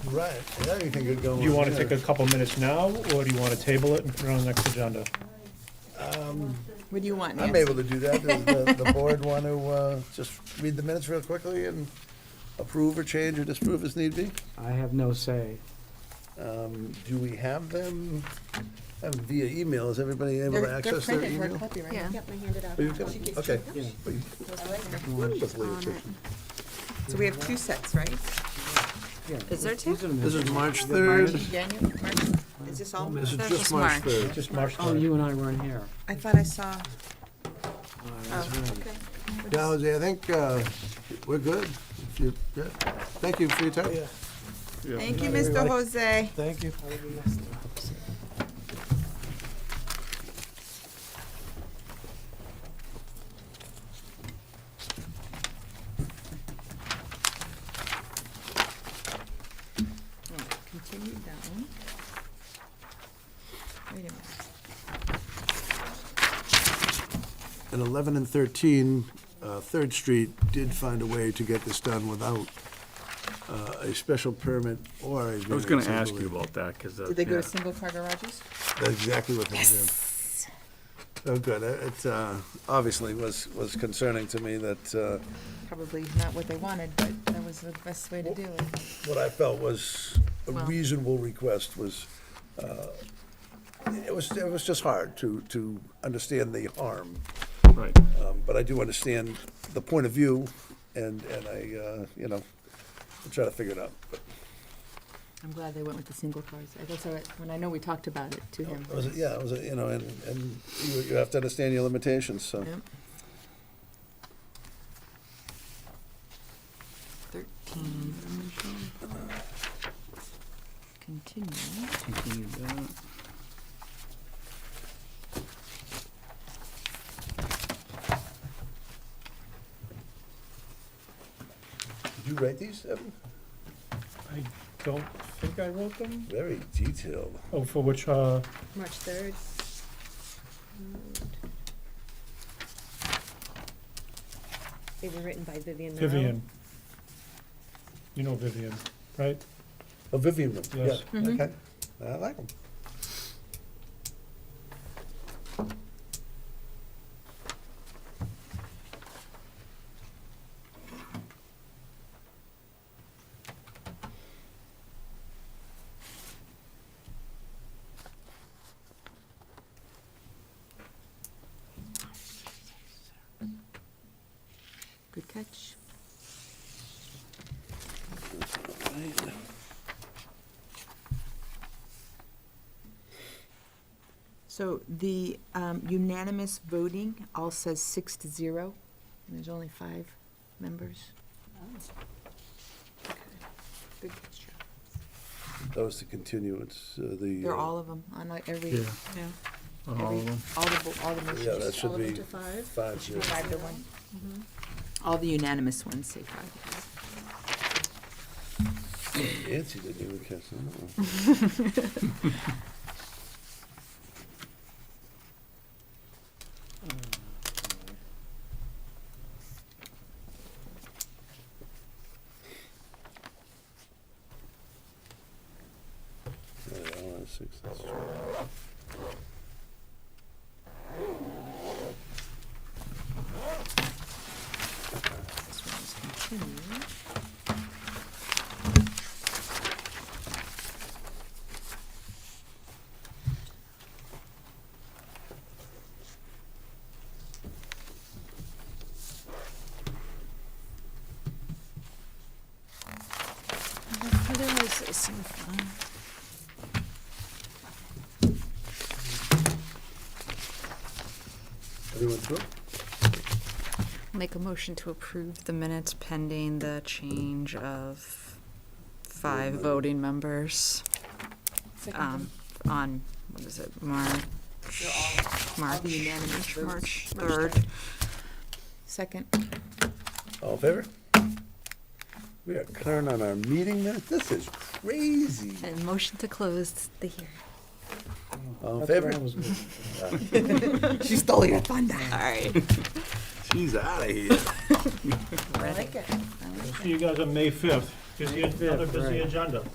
Right, yeah, you think it'd go. Do you on want to there. take a couple minutes now, or do you want to table it and put it on the next agenda? What do you want, I'm Nancy? able to do that. Does the, the board want to, uh, just read the minutes real quickly and approve or change or disapprove as need be? I have no say. Um, do we have them um, via email? Is everybody able to They're, they're access their printed, we're email? copyrighted. Yeah. Yep, I handed out. Oh, you've got- She gets Okay. two. Yeah. Well, you- I like her. wonderfully on efficient. So we have two sets, right? Yeah, Is there these two? are the This is minutes. March Is it March? third. January, March, is this all? This is That's just just March March. third. Just March Oh, 3rd. you and I weren't here. I thought I saw, Uh, that's right. Now, Jose, I think, uh, we're good. If you- yeah. Thank you for your time. thank you, Mr. Jose. Thank you. Continue down. Wait a minute. At eleven and thirteen, uh, Third Street did find a way to get this done without, uh, a special permit or a I was gonna variance, ask you believe. about that, cause. uh, Did they go yeah. to single car garages? That's exactly what they did. Oh, good. It, it, uh, obviously was, was concerning to me that, uh, Probably not what they wanted, but that was the best way to do it. what I felt was a Well- reasonable request was, uh, it was, it was just hard to, to understand the harm. Right. Um, but I do understand the point of view and, and I, uh, you know, I'll try to figure it out. But I'm glad they went with the single cars. I guess, I- when I know we talked about it to him. It was, yeah, it was, you know, and, and you, you have to understand your limitations, so. Yep. Thirteen. Continue. Continue that. Did you write these, Evan? I don't think I wrote them. Very detailed. Oh, for which, uh, March third. They were written by Vivian Morrow. Vivian. You know Vivian, right? Oh, Vivian, one, yeah, Yes. okay. I like them. Good catch. So the um, unanimous voting all says six to zero, and there's only five members. Okay. Good catch. That was the continuance, uh, the. They're uh, all of them, on like every, Yeah, every, on all of them. all the, bo- all the Yeah, that motions. should All of be them to five. five zero. Five to one. All the unanimous ones say five. Nancy didn't even Uh-uh. catch that. Yeah, I want six, that's true. This one is continued. Everyone through? Make a motion to approve the minutes pending the change of five voting members, um, on, what is it, March? March, unanimous votes. March March third. Second, All in favor? We are current on our meeting minutes. This is crazy. And motion to close the hearing. All in That's where I favor? was with. she stole your thunder. All right. She's out of here. I like it. I like it. See you guys on May 5th. Busy, another busy right. agenda.